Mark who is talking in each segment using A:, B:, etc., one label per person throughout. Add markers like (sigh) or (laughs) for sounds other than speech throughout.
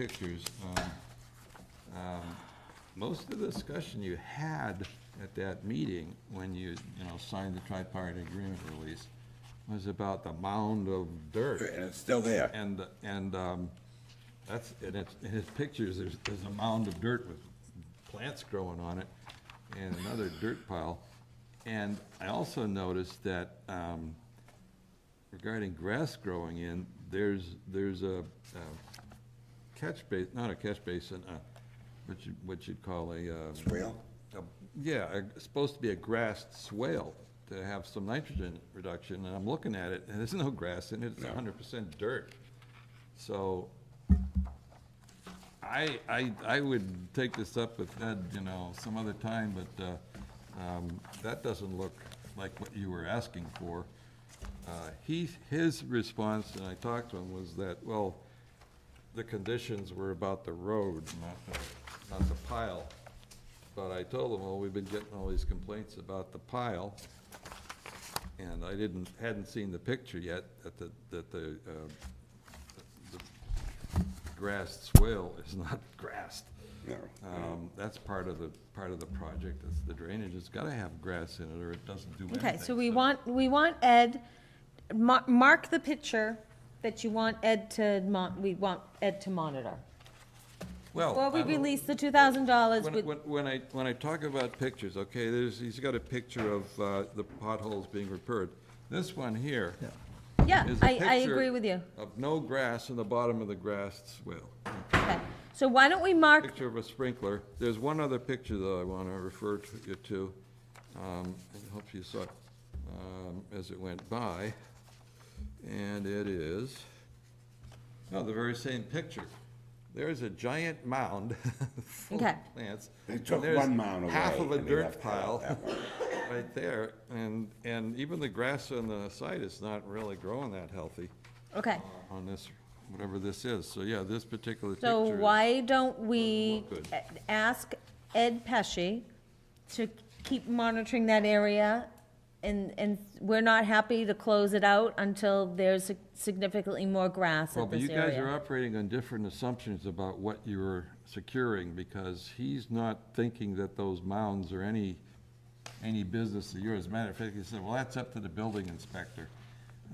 A: pictures. um, um, Most of the discussion you had at that meeting, when you, you know, signed the tripartite agreement release, was about the mound of dirt.
B: And it's still there.
A: And, and um, that's, and it's, in his pictures, there's, there's a mound of dirt with plants growing on it and another dirt pile. And I also noticed that um, regarding grass growing in, there's, there's a a catch base, not a catch basin, uh, what you, what you'd call a. uh,
B: Swale?
A: a- Yeah, a- it's supposed to be a grassed swale to have some nitrogen reduction, and I'm looking at it, and there's no grass in it, it's
B: No.
A: hundred percent dirt. So I, I, I would take this up with Ed, you know, some other time, but, uh, um, that doesn't look like what you were asking for. Uh, he, his response, and I talked to him, was that, well, the conditions were about the road, not the, not the pile. But I told him, well, we've been getting all these complaints about the pile, and I didn't, hadn't seen the picture yet, that the, that the, uh, the grassed swale is not (laughs) grassed.
B: No.
A: Um, that's part of the, part of the project, it's the drainage, it's gotta have grass in it, or it doesn't do anything.
C: Okay, so we want, we want Ed, mar- mark the picture that you want Ed to mon, we want Ed to monitor.
A: Well,
C: Before we
A: Oh, I don't-
C: release the two thousand dollars,
A: When, when- when I, when I talk about pictures, okay, there's, he's got a picture of, uh, the potholes being repaired. This one here is
C: yeah,
A: a
C: I, I
A: picture
C: agree with you.
A: Of no grass in the bottom of the grassed swale.
C: Okay, so why don't we mark,
A: Picture of a sprinkler. There's one other picture that I wanna refer to you to. Um, I hope you saw, it, um, as it went by. And it is, no, the very same picture. There's a giant mound (laughs) full of
C: Okay.
A: plants.
B: They
A: and
B: took
A: there's
B: one mound away.
A: Half of a
B: and they
A: dirt
B: left that-
A: pile
B: that one.
A: (laughs) right there, and, and even the grass on the side is not really growing that healthy
C: okay,
B: Uh-huh.
A: on this, whatever this is. So, yeah, this particular picture.
C: so
A: is-
C: why don't we
A: Good.
C: a- ask Ed Pesci to keep monitoring that area? And, and we're not happy to close it out until there's significantly more grass
A: Well,
C: at
A: but
C: this
A: you guys are
C: area.
A: operating on different assumptions about what you're securing, because he's not thinking that those mounds are any, any business of yours. As a matter of fact, he said, well, that's up to the building inspector.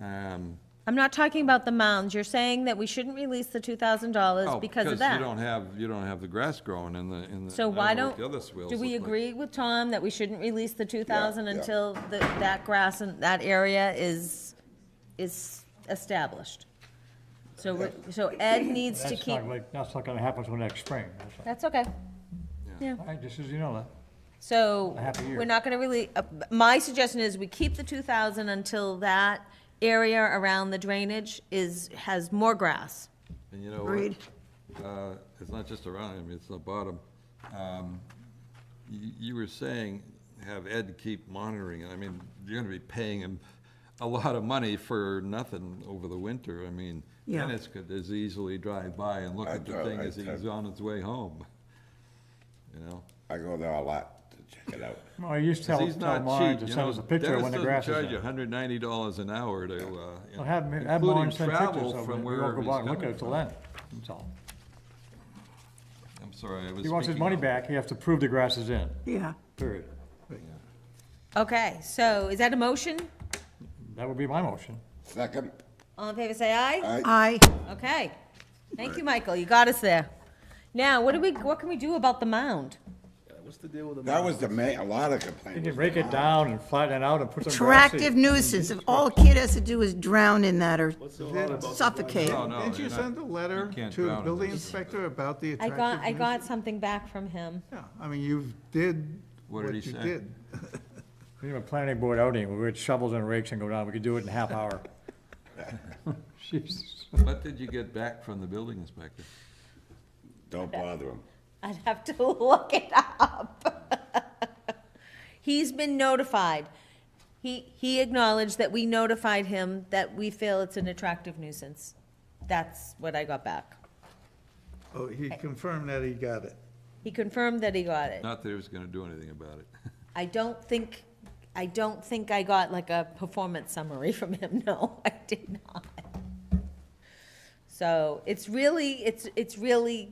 A: Um,
C: I'm not talking about the mounds, you're saying that we shouldn't release the two thousand dollars
A: oh,
C: because of
A: you don't
C: that.
A: have, you don't have the grass growing in the, in the.
C: So
A: I
C: why
A: know
C: don't,
A: what the other swales
C: do we
A: look like.
C: agree with Tom that we shouldn't release the two thousand
B: yeah.
C: until the, that grass and that area is, is established? So, we're- so Ed needs to
D: That's
C: keep,
D: not, like- that's not gonna happen till next spring, that's all.
C: that's okay.
D: All right, just as you know that.
C: So,
D: A happy year.
C: we're not gonna really, uh, my suggestion is we keep the two thousand until that area around the drainage is, has more grass.
A: And you know what? Uh, It's not just around, I mean, it's the bottom. Um, You you were saying, have Ed keep monitoring, it. I mean, you're gonna be paying him a lot of money for nothing over the winter. I mean,
E: Yeah.
A: Dennis could as easily drive by and look
B: I
A: at the
B: drive-
A: thing
B: I
A: as he's
B: drive-
A: on his way home, you know?
B: I go there a lot to check it out.
D: Well, I used to
A: 'Cause
D: tell,
A: he's
D: tell
A: not
D: Maren
A: cheap,
D: to
A: you
D: send
A: know?
D: us a picture when the grass
A: Dennis
D: is
A: doesn't charge you
D: there.
A: hundred ninety dollars an hour to, uh, you
D: Well, have,
A: know,
D: him- have Maren
A: including
D: send pictures
A: travel
D: of it,
A: from
D: we won't
A: wherever
D: go
A: he's
D: by and look at
A: coming
D: it till
A: from.
D: then, that's all.
A: I'm sorry, I was
D: He wants his
A: speaking
D: money
A: out.
D: back, he has to prove the grass is in,
E: Yeah,
D: period.
C: Okay, so is that a motion?
D: That would be my motion.
B: Second,
C: All in favor, say aye.
B: I,
E: I,
C: Okay. Thank you, Michael. You got us there. Now, what do we, what can we do about the mound?
B: that was the main, a lot of complaints.
D: He can break it down and flatten it out and put some grass
E: attractive
D: seed.
E: nuisance, if all a kid has to do is drown in that or suffocate.
A: No, no,
F: Didn't you
A: you're not-
F: send a letter
A: can't
F: to the
A: drown in
F: building
A: this.
F: inspector about the
C: I got, I
F: attractiveness?
C: got something back from him.
F: Yeah, I mean, you did
A: What
F: what
A: did
F: you
A: he say?
F: did.
D: We have a planning board outing, we had shovels and rakes and go down, we could do it in a half hour. Jesus.
A: What did you get back from the building inspector?
B: Don't bother him.
C: I'd have to (laughs) look it up. (laughs) He's been notified. He, he acknowledged that we notified him that we feel it's an attractive nuisance. That's what I got back.
F: Oh, he confirmed that he got it.
C: He confirmed that he got it.
A: Not that he was gonna do anything about it.
C: I don't think, I don't think I (laughs) got like a performance summary from him, no, I did not. So it's really, it's, it's really